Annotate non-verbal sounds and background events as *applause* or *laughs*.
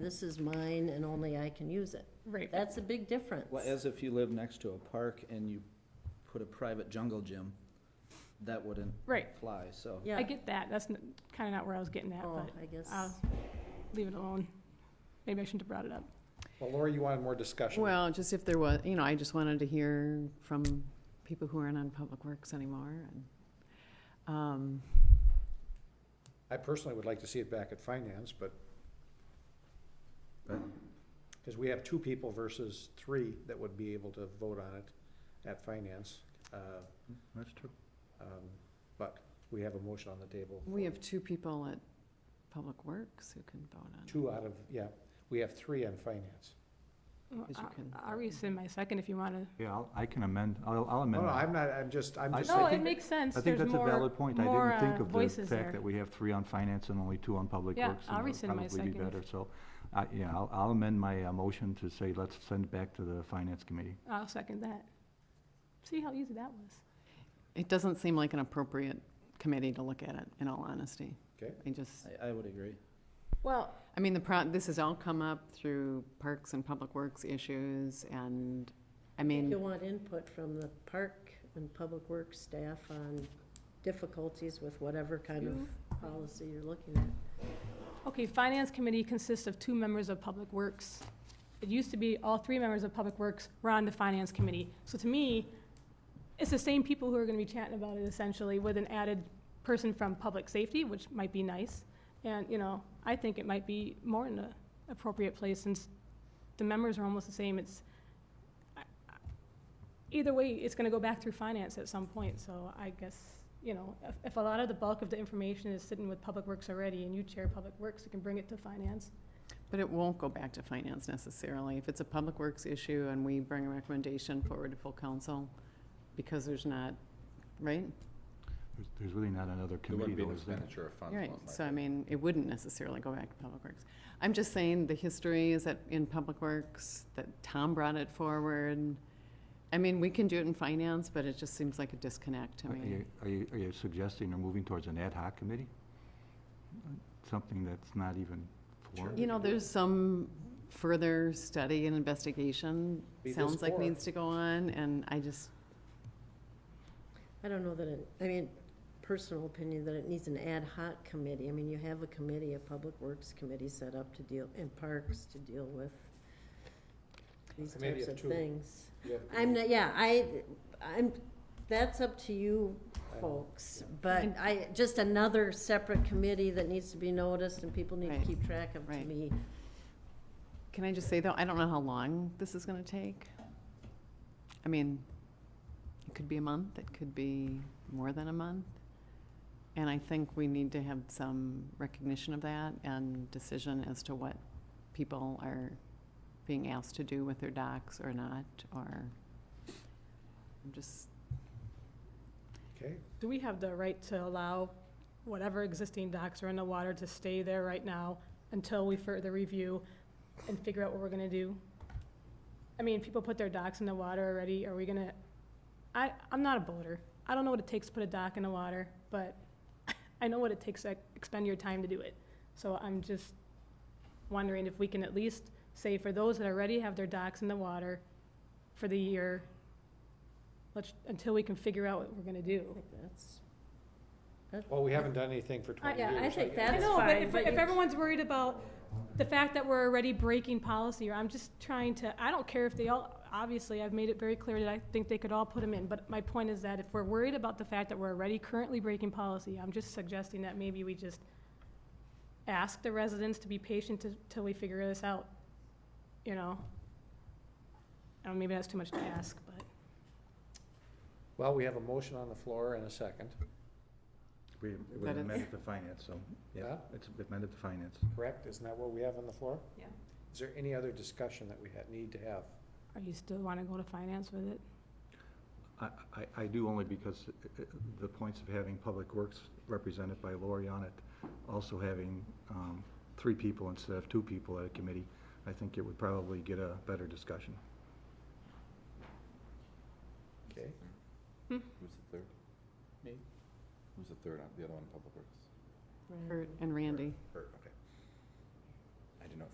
This is mine and only I can use it. Right. That's a big difference. Well, as if you live next to a park and you put a private jungle gym, that wouldn't Right. fly, so. Yeah. I get that. That's kind of not where I was getting at, Oh, but um, I guess. I'll leave it alone. Maybe I shouldn't have brought it up. Well, Laura, you wanted more discussion. Well, just if there was, you know, I just wanted to hear from people who aren't on Public Works anymore and, um, I personally would like to see it back at finance, but because we have two people versus three that would be able to vote on it at finance. uh, That's true. um, But we have a motion on the table. we for have two people at Public Works who can vote on. it. Two out of, yeah, we have three on finance. Well, Yes, you I- can. I'll rescind my second if you want to. Yeah, I'll- I can amend, I'll I'll No, amend no, that. Oh, I'm not, I'm just, I'm I- just. I No, it think- makes sense. I think There's that's a more- valid point. I more, didn't think uh, of the voices fact there. that we have three on finance and only two on public Yeah, works. and I'll that would rescind my Probably be second. better, so, I- yeah, I'll- I'll amend my uh, motion to say, let's send it back to the finance committee. I'll second that. See how easy that was? It doesn't seem like an appropriate committee to look at it, in all honesty. Okay. I just, I, I would agree. Well, I mean, the pro, this has all come up through Parks and Public Works issues and, I You mean, want input from the park and public works staff on difficulties with whatever kind of policy you're looking at. okay, Finance Committee consists of two members of Public Works. It used to be all three members of Public Works were on the Finance Committee. So to me, it's the same people who are going to be chatting about it essentially with an added person from Public Safety, which might be nice. And, you know, I think it might be more in an appropriate place since the members are almost the same. It's, I- I- either way, it's going to go back through Finance at some point. So I guess you know, if, if a lot of the bulk of the information is sitting with Public Works already, and you chair Public Works, you can bring it to finance. but it won't go back to finance necessarily. If it's a Public Works issue and we bring a recommendation forward to full council, because there's not, right? There's- There's really not another committee, though, is there? of funds. Right, so I mean, it wouldn't necessarily go back to Public Works. I'm just saying, the history is that in Public Works, that Tom brought it forward. I mean, we can do it in finance, but it just seems like a disconnect to Uh, Are me. you- Are you, are you suggesting or moving towards an ad hoc committee? Something that's not even formed? You know, there's some further study and investigation, Be this sounds like or- needs to go on, and I just, I don't know that it, I mean, personal opinion, that it needs an ad hoc committee. I mean, you have a committee, a public works committee set up to deal, and parks to deal with these I mean, you types have of two. things. Yeah. I'm, not- yeah, I, I'm, that's up to you folks, but And- I, just another separate committee that needs to be noticed and people need to Right, keep track of, to right. me. can I just say though, I don't know how long this is gonna take. I mean, it could be a month, it could be more than a month. And I think we need to have some recognition of that and decision as to what people are being asked to do with their docs or not, or I'm just, Okay, Do we have the right to allow whatever existing docks are in the water to stay there right now until we further review and figure out what we're gonna do? I mean, people put their docks in the water already, are we gonna, I, I'm not a boater. I don't know what it takes to put a dock in the water, but *laughs* I know what it takes to expend your time to do it. So I'm just wondering if we can at least say for those that already have their docks in the water for the year, let's, until we can figure out what we're gonna do. I think that's. well, we haven't done anything for twenty yeah, years. I think guess. I That's know, but fine, if, but if you- everyone's worried about the fact that we're already breaking policy, or I'm just trying to, I don't care if they all, obviously, I've made it very clear that I think they could all put them in, but my point is that if we're worried about the fact that we're already currently breaking policy, I'm just suggesting that maybe we just ask the residents to be patient till, till we figure this out, you know? I don't, maybe that's too much to ask, but. Well, we have a motion on the floor and a second, We, was But it's- amended to finance, so, yeah, Huh? it's amended to finance. correct? Isn't that what we have on the floor? Yeah. Is there any other discussion that we ha need to have? Are you still wanna go to finance with it? I, I- I do only because uh, uh, the points of having Public Works represented by Lori on it, also having um, three people instead of two people at a committee, I think it would probably get a better discussion. Okay, Who's the third? Me. Who's the third on, the other one, Public Works? Kurt and Randy. Her, okay. I didn't know